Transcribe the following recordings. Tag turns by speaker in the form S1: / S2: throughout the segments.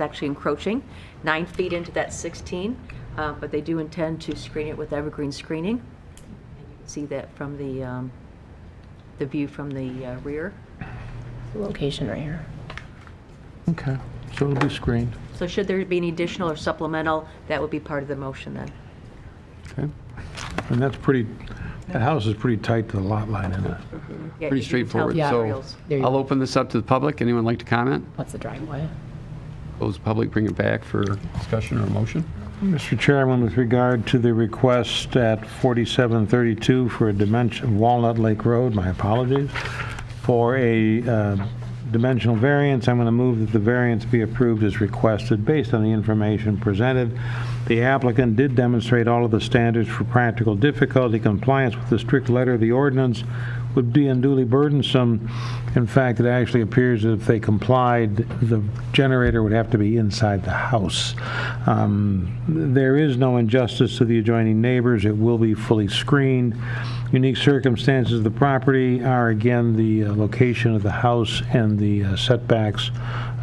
S1: actually encroaching nine feet into that 16, uh, but they do intend to screen it with evergreen screening. And you can See that from the, um, the view from the uh, rear.
S2: Location right here.
S3: Okay, so it'll be screened.
S1: So should there be any additional or supplemental, that would be part of the motion then.
S3: Okay. And that's pretty, that house is pretty tight to the lot line, isn't it?
S1: Yeah,
S4: Pretty
S1: you can tell
S4: straightforward.
S1: the
S2: Yeah.
S4: So
S1: aerials.
S2: There you
S4: I'll
S2: go.
S4: open this up to the public. Anyone like to comment?
S2: What's the driveway?
S4: Close the public, bring it back for discussion or motion.
S3: Mr. Chairman, with regard to the request at 4732 for a dimension, Walnut Lake Road, my apologies, for a uh, dimensional variance, I'm going to move that the variance be approved as requested based on the information presented. The applicant did demonstrate all of the standards for practical difficulty, compliance with the strict letter of the ordinance would be unduly burdensome. In fact, it actually appears that if they complied, the generator would have to be inside the house. Um, There is no injustice to the adjoining neighbors. It will be fully screened. Unique circumstances of the property are, again, the uh, location of the house and the uh, setbacks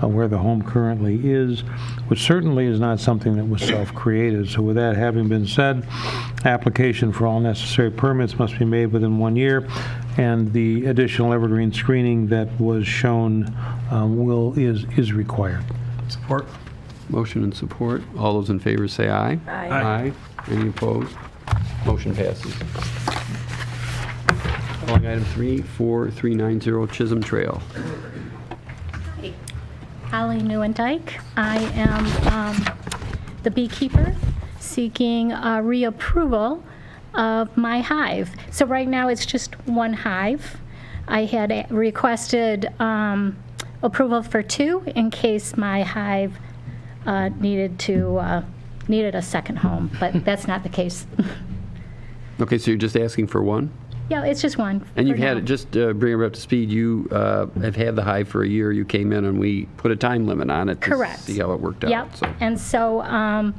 S3: uh, where the home currently is, which certainly is not something that was self-created. So with that having been said, application for all necessary permits must be made within one year, and the additional evergreen screening that was shown um, will, is, is required.
S4: Support. Motion and support. All those in favor say aye. Aye. Any opposed? Motion passes. Calling item 34390 Chisholm Trail.
S5: Holly Newendike. I am um, the beekeeper seeking uh, reapproval of my hive. So right now, it's just one hive. I had a- requested um, approval for two in case my hive uh, needed to, uh, needed a second home, but that's not the case.
S4: Okay, so you're just asking for one?
S5: Yeah, it's just one.
S4: And
S5: for
S4: you've had
S5: now.
S4: it, just uh, bring her up to speed, you uh, have had the hive for a year. You came in and we put a time limit on it. to
S5: Correct.
S4: See how it worked out.
S5: Yep.
S4: So-
S5: And so um,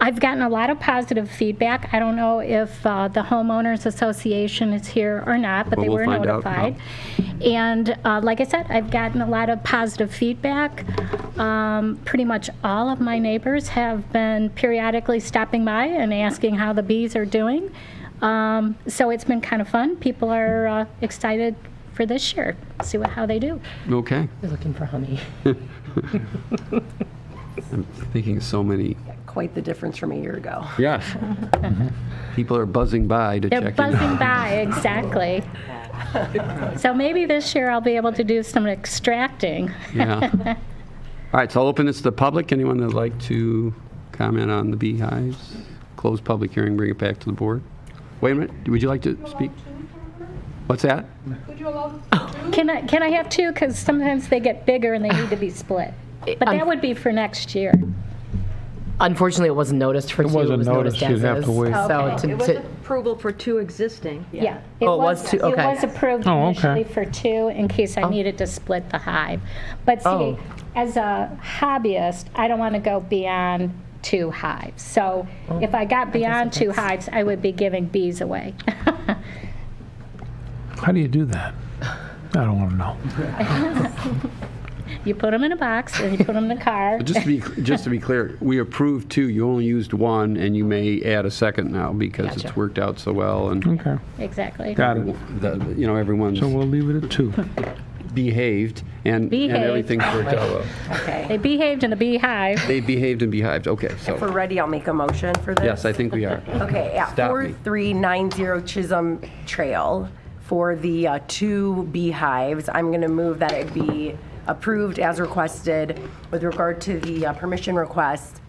S5: I've gotten a lot of positive feedback. I don't know if uh, the homeowners association is here or not, but
S4: Well,
S5: they
S4: we'll
S5: were
S4: find out,
S5: notified. And uh, like I said, I've gotten a lot of positive feedback. Um, pretty much all of my neighbors have been periodically stopping by and asking how the bees are doing. Um, so it's been kind of fun. People are uh, excited for this year. See what how they do.
S4: Okay.
S2: They're looking for honey.
S4: Thinking of so many.
S6: quite the difference from a year ago.
S4: Yes. People are buzzing by to
S5: They're
S4: check in.
S5: buzzing by, exactly. So maybe this year I'll be able to do some extracting.
S4: Yeah. All right, so I'll open this to the public. Anyone that'd like to comment on the beehives? Close public hearing, bring it back to the board. Wait a minute, would you like to speak? What's that?
S5: Can I, can I have two? Because sometimes they get bigger and they need to be split. But that would be for next year.
S2: Unfortunately, it wasn't noticed for two.
S3: wasn't
S2: noticed
S3: noticed.
S2: as
S3: You'd have
S2: is.
S3: to wait.
S2: So
S1: It
S2: to-
S1: was
S2: to-
S1: approval for two existing.
S5: Yeah.
S2: Oh, it was two, okay.
S5: It was approved
S3: Oh, okay.
S5: initially for two in case I needed to split the hive. But see,
S2: Oh.
S5: as a hobbyist, I don't want to go beyond two hives. So if I got beyond two hives, I would be giving bees away.
S3: How do you do that? I don't want to know.
S5: You put them in a box and you put them in a car.
S4: Just to be, just to be clear, we approved two, you only used one, and you may add a second now because it's
S2: Gotcha.
S4: worked out so well and,
S3: Okay,
S5: Exactly.
S3: got it.
S4: the- you know, everyone's
S3: So we'll leave it at two.
S4: behaved and and
S5: Behaved.
S4: everything's worked out well.
S5: They behaved in a beehive.
S4: They behaved and behived, okay,
S6: If we're
S4: so,
S6: ready, I'll make a motion for this.
S4: yes, I think we are.
S6: Okay, at
S4: Stop me.
S6: 4390 Chisholm Trail for the uh, two beehives, I'm going to move that it be approved as requested. With regard to the uh, permission request,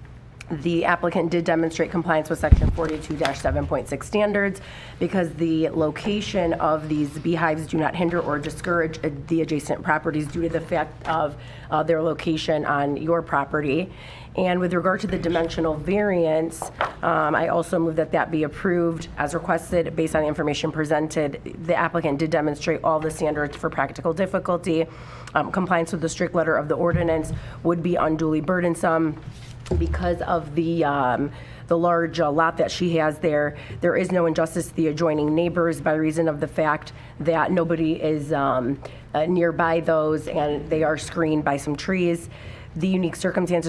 S6: the applicant did demonstrate compliance with section 42-7.6 standards because the location of these beehives do not hinder or discourage uh, the adjacent properties due to the fact of uh, their location on your property. And with regard to the dimensional variance, um, I also move that that be approved as requested based on the information presented. The applicant did demonstrate all the standards for practical difficulty. Um, Compliance with the strict letter of the ordinance would be unduly burdensome because of the, um, the large uh, lot that she has there, there is no injustice to the adjoining neighbors by reason of the fact that nobody is um, uh, nearby those, and they are screened by some trees. The unique circumstances